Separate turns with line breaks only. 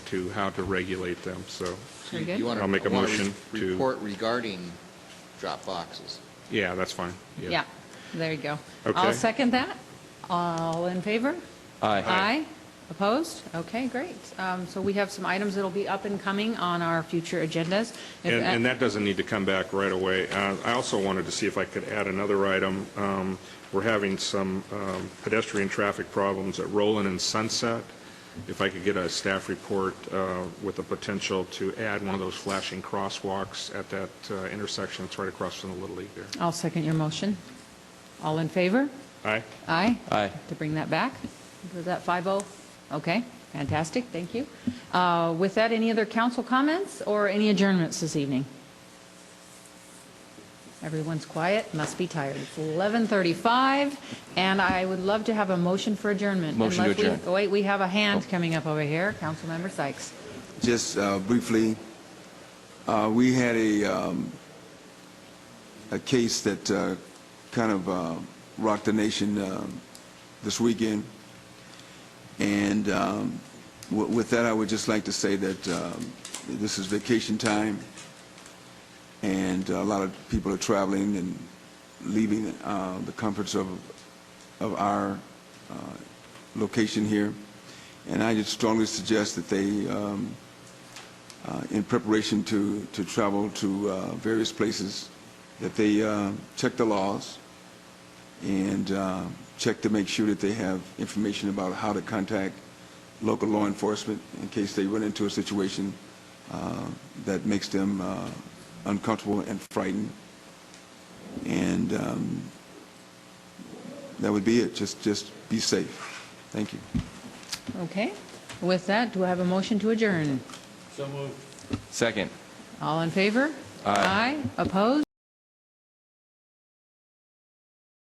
to how to regulate them, so,
Very
You-
good.
you wanna-
I'll make a
wanna re-
motion to-
Report regarding drop boxes.
yeah, that's fine.
Yeah, there you go.
Okay.
I'll second that. All in favor?
Aye.
Aye. Opposed? Okay, great. Um, So we have some items that'll be up and coming on our future agendas. If-
And, and that doesn't need to come back right away. Uh, I also wanted to see if I could add another item. Um, We're having some um, pedestrian traffic problems at Roland and Sunset. If I could get a staff report uh, with the potential to add one of those flashing crosswalks at that uh, intersection, it's right across from the Little League there.
I'll second your motion. All in favor?
Aye?
Aye?
Aye.
To bring that back? Was that 5-0? Okay, fantastic, thank you. Uh, With that, any other council comments or any adjournments this evening? Everyone's quiet, must be tired. It's 11:35, and I would love to have a motion for adjournment.
Motion to
Unless we-
adjourn.
oh, Wait, we have a hand coming up over here, Councilmember Sykes.
Just uh, briefly, uh, we had a, um, a case that uh, kind of uh, rocked the nation um, this weekend. And um, wi- with that, I would just like to say that um, this is vacation time, and a lot of people are traveling and leaving uh, the comforts of, of our uh, location here. And I just strongly suggest that they um, uh, in preparation to, to travel to uh, various places, that they uh, check the laws and uh, check to make sure that they have information about how to contact local law enforcement in case they run into a situation uh, that makes them uh, uncomfortable and frightened. And um, that would be it. Just, just be safe. Thank you.
Okay, with that, do I have a motion to adjourn?
Second.
All in favor?
Aye.
Aye, opposed?